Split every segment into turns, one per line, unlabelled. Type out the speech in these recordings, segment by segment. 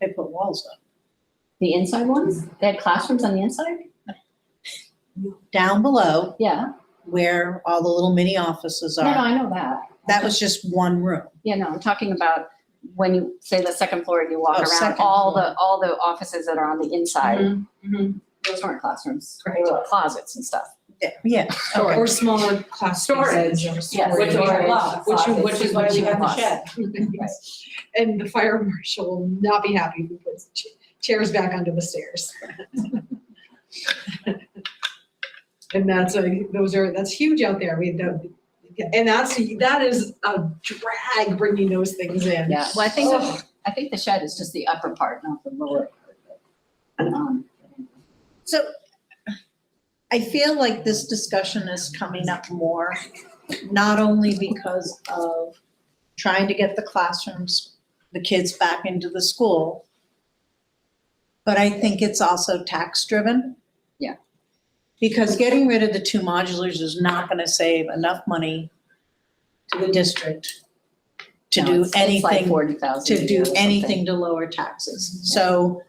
They put walls up.
The inside ones? They had classrooms on the inside?
Down below
Yeah.
where all the little mini offices
No, no,
are,
I know that.
that was just one room.
Yeah, no, I'm talking about when you say the second Mm-hmm, floor and you walk
Oh,
around,
second
all
floor.
the, all the offices that are on the inside.
Mhm, mhm.
Those weren't classrooms. They
Correct.
were closets and stuff.
Yeah, Yeah,
Or
okay.
or smaller class
Storage.
spaces or
Yes,
storage.
which we love.
Which you, which is what you
Which
have
we
the
love.
shed.
Right.
And the fire marshal will not be happy if he puts ch- chairs back onto the stairs. And that's a, those are, that's huge out there. We, that- and that's, that is a drag bringing those things in.
Yeah, well, I think,
Ugh.
the- I think the shed is just the upper part, not the lower. part. Um,
So I feel like this discussion is coming up more, not only because of trying to get the classrooms, the kids back into the school, but I think it's also tax-driven.
Yeah.
Because getting rid of the two modulars is not gonna save enough money to the district to
no,
do
it's- it's like
anything
40,000
to
a year or
do Mm-hmm.
something.
anything to lower taxes. So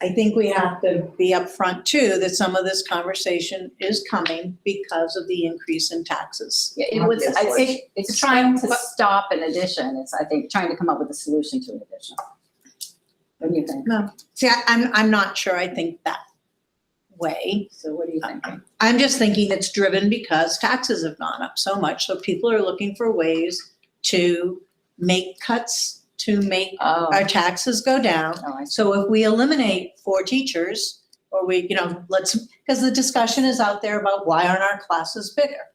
I think we have to be upfront too, that some of this conversation is coming because of the increase in taxes.
Yeah, it was, I
Obviously.
think, it's trying to stop an addition, it's, I think, trying to come up with a solution to an addition. What do you think?
See, I- I'm, I'm not sure I think that way.
So what do you think?
I'm just thinking it's driven because taxes have gone up so much, so people are looking for ways to make cuts, to make
Oh,
our taxes go down.
oh, I see.
So if we eliminate four teachers, or we, you know, let's, because the discussion is out there about why aren't our classes bigger?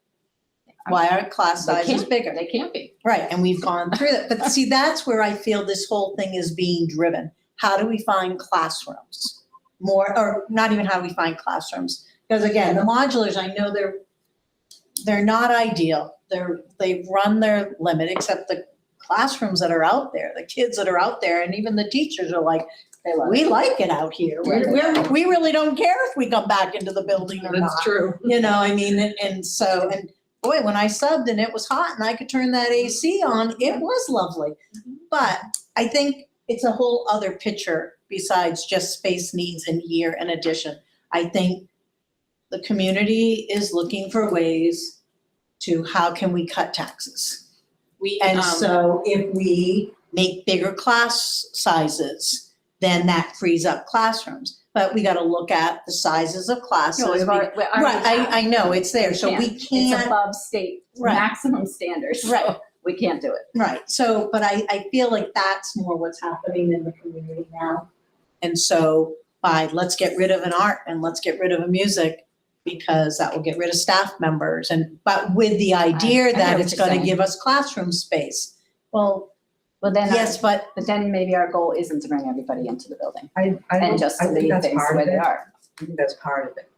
Why aren't class
They
sizes
can't-
bigger?
They can't be.
Right, and we've gone through that, but see, that's where I feel this whole thing is being driven. How do we find classrooms? More, or not even how do we find classrooms, because again, the modulars, I know they're, they're not ideal. They're, they've run their limit, except the classrooms that are out there, the kids that are out there, and even the teachers are like,
They love it.
we like it out here. We're, we're, we really don't care if we come back into the building or not.
That's true.
You know, I mean, and, and so, and boy, when I subbed and it was hot and I could turn that AC on, it was lovely.
Mm-hmm.
But I think it's a whole other picture besides just space needs and year and addition. I think the community is looking for ways to how can we cut taxes?
We,
And
um,
so if we make bigger class sizes, then that frees up classrooms. But we gotta look at the sizes of classes.
No, we've
We-
already- we already
Right,
have.
I, I know, it's there, so we
It's
can't,
above state
Right.
maximum standards. so
Right.
We can't do it.
right, so, but I, I feel like that's more what's happening in the community now. And so by, let's get rid of an art and let's get rid of a music, because that will get rid of staff members and, but with the
I
idea
know
that
what
it's
you're
gonna
saying.
give us classroom space. Well,
Well, then,
yes,
our-
but
but then maybe our goal isn't to bring everybody into the building
I, I
and
don't-
just
I
to
think
leave
that's
things
part
the way
of
they
it.
are.
I think that's part of it,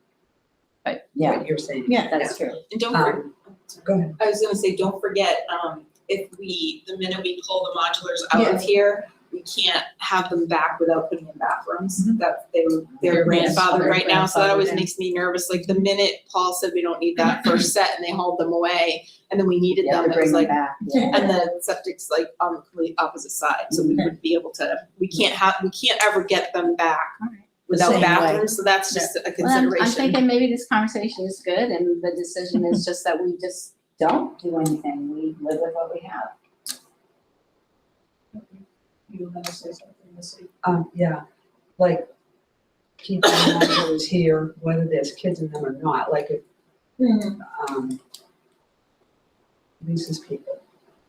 But, yeah,
what you're saying.
Yeah.
that's true.
and don't forget,
Um, Go ahead.
I was gonna say, don't forget, um, if we, the minute we pull the modulars out
Yeah.
of here, we can't have them back without putting in bathrooms,
Mm-hmm.
that they were,
They're
they're grandfathered
grandfathered,
right now, so that always
grandfathered in.
makes me nervous, like the minute Paul said we don't need that first set and they hauled them away, and then we needed
Yeah,
them,
to
it was
bring them
like,
back. yeah.
and the septic's like on the complete opposite side, so we would be able to, we can't have, we can't ever get them back
All right.
without
Same way.
bathrooms, so that's just a
Well, I'm-
consideration.
I'm thinking maybe this conversation is good and the decision is just that we just don't do anything. We live with what we have.
You were gonna say something, Missy?
Um, yeah, like, keep in mind who is here, whether there's kids in them or not, like, if,
Mm-hmm.
um, Lisa's people,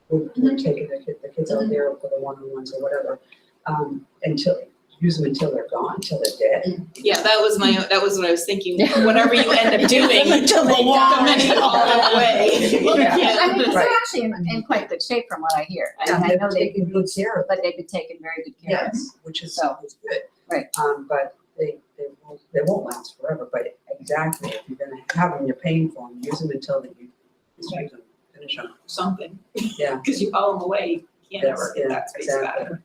who
Mm-hmm.
were taking the kid, the kids out there for the one-on-ones or whatever, um, until, use them until they're gone, until they're dead.
Yeah, that was my, that was what I was thinking,
Yeah.
whatever you end up doing,
Until they
the
die.
minute you haul them away. you
Yeah.
I mean,
can't-
'cause
Right.
they're actually in, in quite good shape from what I hear. I mean, I know they,
Taking good care of
but they've been taken very good care of.
Yes, which is,
So,
is good.
right.
Um, but they, they won't, they won't last forever, but exactly, if you're gonna have them, you're paying for them, use them until that you, just use them, finish them.
Something.
Yeah.
Cause you haul them away, you can't ever
That's-
get
yeah,
that space back.
exactly.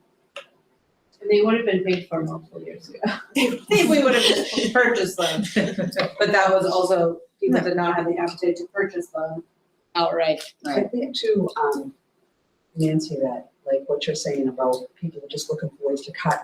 And they would have been paid for multiple years ago.
If we would have just purchased them.
But that was also, people did not have the appetite to purchase them outright.
I think too, um, Nancy, that, like what you're saying about people just looking for ways to cut and